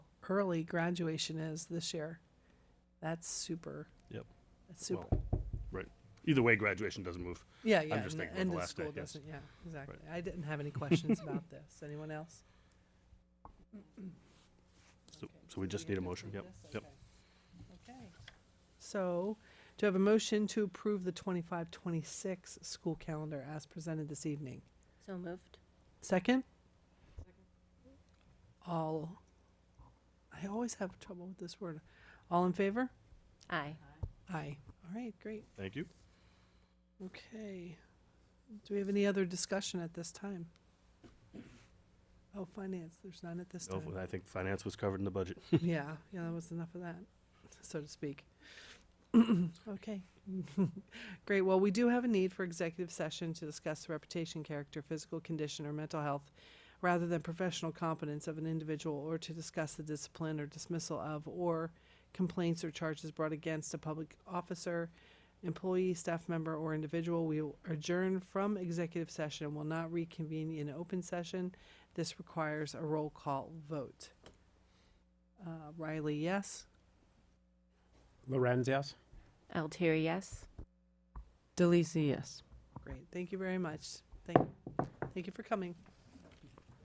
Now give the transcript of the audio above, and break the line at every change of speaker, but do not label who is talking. early graduation is this year. That's super.
Yep.
That's super.
Right. Either way, graduation doesn't move.
yeah, yeah.
just
and
thinking about
end
the
of
last day,
school
yes.
doesn't. Yeah, exactly. I didn't have any questions about this. Anyone else?
So,
Okay,
so we
did
just
get
need a
to
motion. Yep.
approve this?
Yep.
Okay. Okay. So, do I have a motion to approve the 25-26 school calendar as presented this evening?
So moved.
Second? All, I always have trouble with this word. All in favor?
Aye.
Aye. All right, great.
Thank you.
Okay. Do we have any other discussion at this time? Oh, finance, there's none at this
Oh,
time.
I think finance was covered in the budget.
Yeah, yeah, that was enough of that, so to speak. Okay. Great. Well, we do have a need for executive session to discuss the reputation, character, physical condition, or mental health rather than professional competence of an individual or to discuss the discipline or dismissal of or complaints or charges brought against a public officer, employee, staff member, or individual. We will adjourn from executive session and will not reconvene in open session. This requires a roll call vote. Uh, Riley, yes.
Lorenz, yes?
Altieri, yes?
Delisi, yes.
Great. Thank you very much. Thank, thank you for coming.